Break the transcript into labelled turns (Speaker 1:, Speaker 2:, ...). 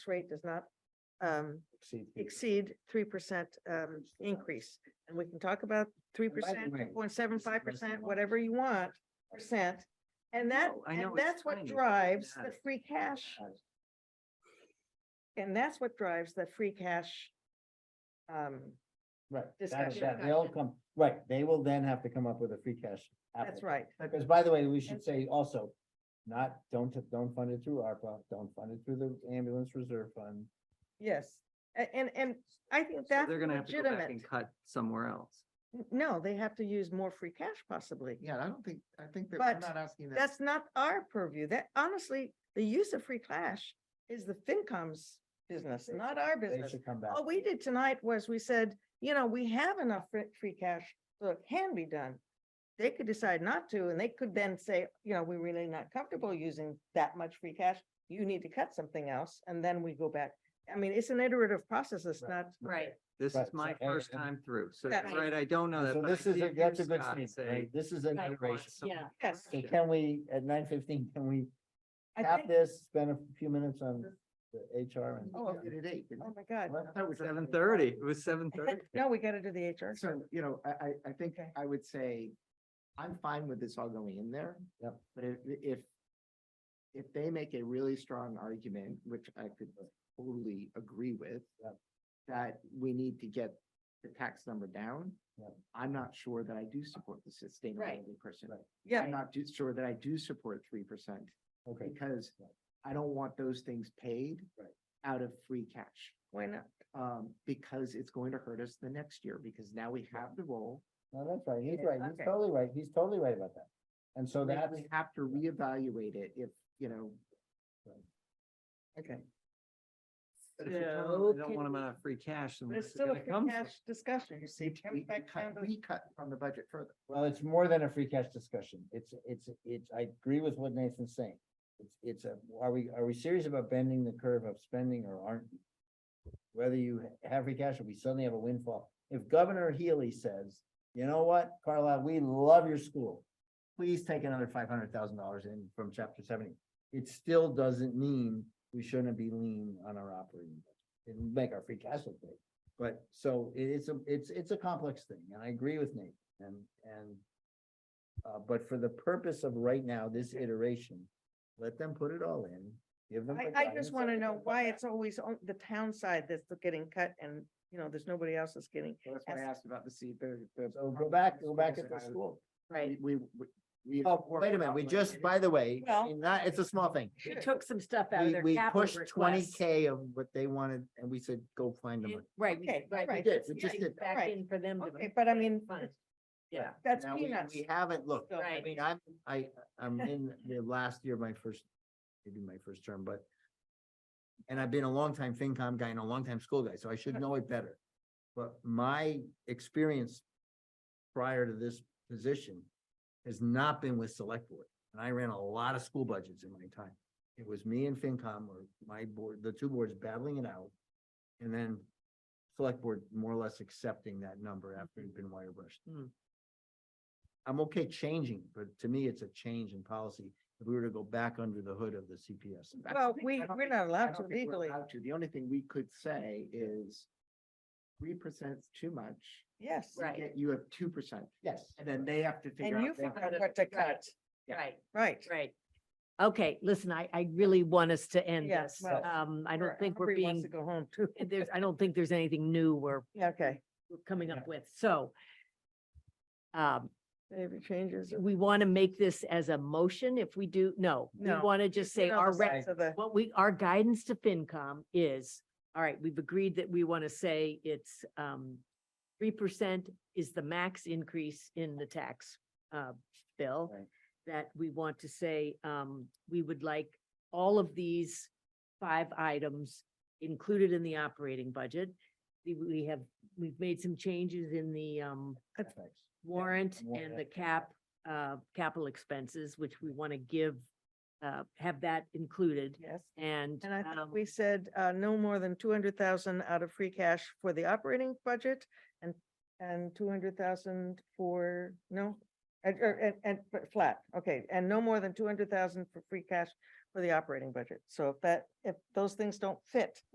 Speaker 1: rate does not um,
Speaker 2: exceed the-
Speaker 1: exceed three percent um, increase. And we can talk about three percent,
Speaker 2: way,
Speaker 1: point seven five percent,
Speaker 2: resolution-
Speaker 1: whatever you want, percent. And that,
Speaker 2: No, I
Speaker 1: and
Speaker 2: know, it's
Speaker 1: that's what
Speaker 2: fine, it's
Speaker 1: drives
Speaker 2: not-
Speaker 1: the free cash. And that's what drives the free cash. um,
Speaker 2: Right, that,
Speaker 1: discussion.
Speaker 2: that, they'll come, right, they will then have to come up with a free cash.
Speaker 1: That's
Speaker 2: application.
Speaker 1: right.
Speaker 2: Because by the way, we should say also, not, don't, don't fund it through ARPA, don't fund it through the ambulance reserve fund.
Speaker 1: Yes. A- And, and I think
Speaker 3: So
Speaker 1: that's
Speaker 3: they're gonna have to go back
Speaker 1: legitimate.
Speaker 3: and cut somewhere else.
Speaker 1: No, they have to use more free cash possibly.
Speaker 4: Yeah, I don't think, I think that
Speaker 1: But
Speaker 4: I'm not asking that.
Speaker 1: That's not our purview. That honestly, the use of free cash is the FinCom's business,
Speaker 2: They-
Speaker 1: not our
Speaker 2: They
Speaker 1: business.
Speaker 2: should come back.
Speaker 1: All we did tonight was we said, you know, we have enough fr- free cash, so it can be done. They could decide not to, and they could then say, you know, we're really not comfortable using that much free cash. You need to cut something else, and then we go back. I mean, it's an iterative process. It's
Speaker 2: Right.
Speaker 1: not,
Speaker 5: Right,
Speaker 3: This
Speaker 2: Right,
Speaker 3: is
Speaker 2: so-
Speaker 3: my
Speaker 2: and-
Speaker 3: first
Speaker 2: and-
Speaker 3: time through, so,
Speaker 1: That-
Speaker 3: right, I don't know that.
Speaker 2: So
Speaker 3: but I
Speaker 2: this
Speaker 3: did
Speaker 2: is, a-
Speaker 3: hear
Speaker 2: that's a good
Speaker 3: Scott
Speaker 2: statement,
Speaker 3: say,
Speaker 2: right? This is an
Speaker 3: "I want
Speaker 2: iteration.
Speaker 3: some
Speaker 5: yeah.
Speaker 1: yes.
Speaker 2: So
Speaker 3: Yeah.
Speaker 2: can we, at nine fifteen, can we
Speaker 1: I
Speaker 2: tap
Speaker 1: think-
Speaker 2: this, spend a few minutes on the HR and?
Speaker 4: Oh, I did it eight. didn't I?
Speaker 1: Oh, my God.
Speaker 2: What?
Speaker 4: I thought it was at
Speaker 3: Seven thirty, it was seven thirty.
Speaker 1: No, we gotta do the HR.
Speaker 4: So, you know, I, I, I think
Speaker 1: Okay.
Speaker 4: I would say, I'm fine with this all going in there.
Speaker 2: Yep.
Speaker 4: But if, if, if they make a really strong argument, which I could totally agree with.
Speaker 2: Yep.
Speaker 4: That we need to get the tax number down.
Speaker 2: Yep.
Speaker 4: I'm not sure that I do support the sustainability person.
Speaker 2: Right.
Speaker 1: Yeah,
Speaker 4: I'm not too sure that I do support three percent
Speaker 2: Okay,
Speaker 4: because
Speaker 2: Right.
Speaker 4: I don't want those things paid.
Speaker 2: Right.
Speaker 4: Out of free cash
Speaker 1: why not?
Speaker 4: um, because it's going to hurt us the next year, because now we have the role.
Speaker 2: no, that's right, he's
Speaker 1: Yeah,
Speaker 2: right, he's
Speaker 1: okay.
Speaker 2: totally right, he's totally right about that. And so
Speaker 4: We
Speaker 2: that's,
Speaker 4: we have to reevaluate it if, you know.
Speaker 2: okay.
Speaker 3: But if you
Speaker 1: Yeah,
Speaker 3: tell them they
Speaker 1: okay.
Speaker 3: don't want them out of free cash, then
Speaker 1: But
Speaker 3: where's
Speaker 1: it's
Speaker 3: it
Speaker 1: still a
Speaker 3: gonna
Speaker 1: free
Speaker 3: come from?
Speaker 1: cash discussion, you see.
Speaker 4: we-
Speaker 1: Comes
Speaker 4: we
Speaker 1: back
Speaker 4: cut-
Speaker 1: down to-
Speaker 4: We cut from the budget further.
Speaker 2: Well, it's more than a free cash discussion. It's, it's, it's, I agree with what Nathan's saying. It's, it's a, are we, are we serious about bending the curve of spending or aren't? we? Whether you have free cash or we suddenly have a windfall. If Governor Healy says, you know what, Carlisle, we love your school. Please take another five hundred thousand dollars in from chapter seventy. It still doesn't mean we shouldn't be lean on our operating. budget. It'll make our free cash look big. But so it- it's a, it's, it's a complex thing and I agree with Nate and, and. Uh, but for the purpose of right now, this iteration, let them put it all in, give them. the
Speaker 1: I, I
Speaker 2: guidance
Speaker 1: just
Speaker 2: and
Speaker 1: want to
Speaker 2: let
Speaker 1: know
Speaker 2: them
Speaker 1: why
Speaker 2: come
Speaker 1: it's always on the town side that's the getting cut and, you know, there's nobody else that's getting.
Speaker 4: So That's why I
Speaker 1: Yes.
Speaker 4: asked about the seat, the,
Speaker 2: back.
Speaker 4: the.
Speaker 2: So go back, go back at the
Speaker 4: Schools
Speaker 2: school.
Speaker 5: right.
Speaker 4: and I- We, we- we.
Speaker 2: Oh, wait a minute, we just, by the way,
Speaker 1: Well-
Speaker 2: and that, it's a small thing.
Speaker 5: We took some stuff out of
Speaker 2: We,
Speaker 5: their
Speaker 2: we
Speaker 5: capital
Speaker 2: pushed twenty
Speaker 5: request.
Speaker 2: K of what they wanted and we said, go find the
Speaker 5: It-
Speaker 2: money.
Speaker 5: Right, we-
Speaker 1: Okay,
Speaker 5: right.
Speaker 1: right.
Speaker 2: We did, we
Speaker 5: yeah,
Speaker 2: just did. that.
Speaker 5: Back
Speaker 1: Right.
Speaker 5: in for them to.
Speaker 1: Okay, but I mean,
Speaker 5: fund.
Speaker 2: Right.
Speaker 5: Yeah,
Speaker 1: that's
Speaker 2: Now, we-
Speaker 1: peanuts.
Speaker 2: We haven't looked. I
Speaker 5: Right.
Speaker 2: mean, I'm, I, I'm in the last year, of my first, maybe my first term, but. And I've been a longtime FinCom guy and a longtime school guy, so I should know it better. But my experience prior to this position has not been with select board. And I ran a lot of school budgets in my time. It was me and FinCom or my board, the two boards battling it out. And then select board more or less accepting that number after it'd been wire brushed.
Speaker 3: Hmm.
Speaker 2: I'm okay changing, but to me, it's a change in policy. If we were to go back under the hood of the CPS.
Speaker 4: That's the
Speaker 1: Well,
Speaker 4: thing,
Speaker 1: we-
Speaker 4: I don't
Speaker 1: we're
Speaker 4: think-
Speaker 1: not
Speaker 4: I
Speaker 1: allowed
Speaker 4: don't
Speaker 1: to
Speaker 4: think we're
Speaker 1: legally.
Speaker 4: allowed to. The only thing we could say is three percent's too much.
Speaker 1: Yes.
Speaker 4: We
Speaker 5: Right.
Speaker 4: get- You have two percent,
Speaker 2: Yes.
Speaker 4: and then they have to figure
Speaker 1: And
Speaker 4: out.
Speaker 1: you
Speaker 4: they have
Speaker 1: figure out
Speaker 4: to-
Speaker 1: what to
Speaker 5: Right.
Speaker 1: cut.
Speaker 4: Yeah.
Speaker 5: right,
Speaker 1: Right.
Speaker 5: right. Okay, listen, I, I really want us to end
Speaker 1: Yeah,
Speaker 5: this.
Speaker 1: well,
Speaker 5: Um, I
Speaker 1: Or
Speaker 5: don't think we're
Speaker 1: Humphrey wants
Speaker 5: being,
Speaker 1: To go home too.
Speaker 5: there's, I don't think there's anything new we're
Speaker 1: Yeah, Okay.
Speaker 5: we're coming
Speaker 2: Yeah.
Speaker 5: up with, so. Um,
Speaker 1: Maybe changes.
Speaker 5: we want to make this as a motion if we do, no, we
Speaker 1: No,
Speaker 5: want to just say our rec-
Speaker 1: rest of the,
Speaker 5: what we, our guidance to FinCom is, all right, we've agreed that we want to say it's um three percent is the max increase in the tax uh bill.
Speaker 2: Right.
Speaker 5: That we want to say, um, we would like all of these five items included in the operating budget. We- We have, we've made some changes in the um
Speaker 2: Thanks.
Speaker 5: warrant
Speaker 2: warrant,
Speaker 5: and
Speaker 2: yeah.
Speaker 5: the cap, uh, capital expenses, which we want to give, uh, have that included.
Speaker 1: yes.
Speaker 5: And,
Speaker 1: And I think
Speaker 5: um,
Speaker 1: we said, uh, no more than two hundred thousand out of free cash for the operating budget and, and two hundred thousand for, er, no? And, or- and, and, but flat, okay, and no more than two hundred thousand for free cash for the operating budget. So if that, if those things don't fit,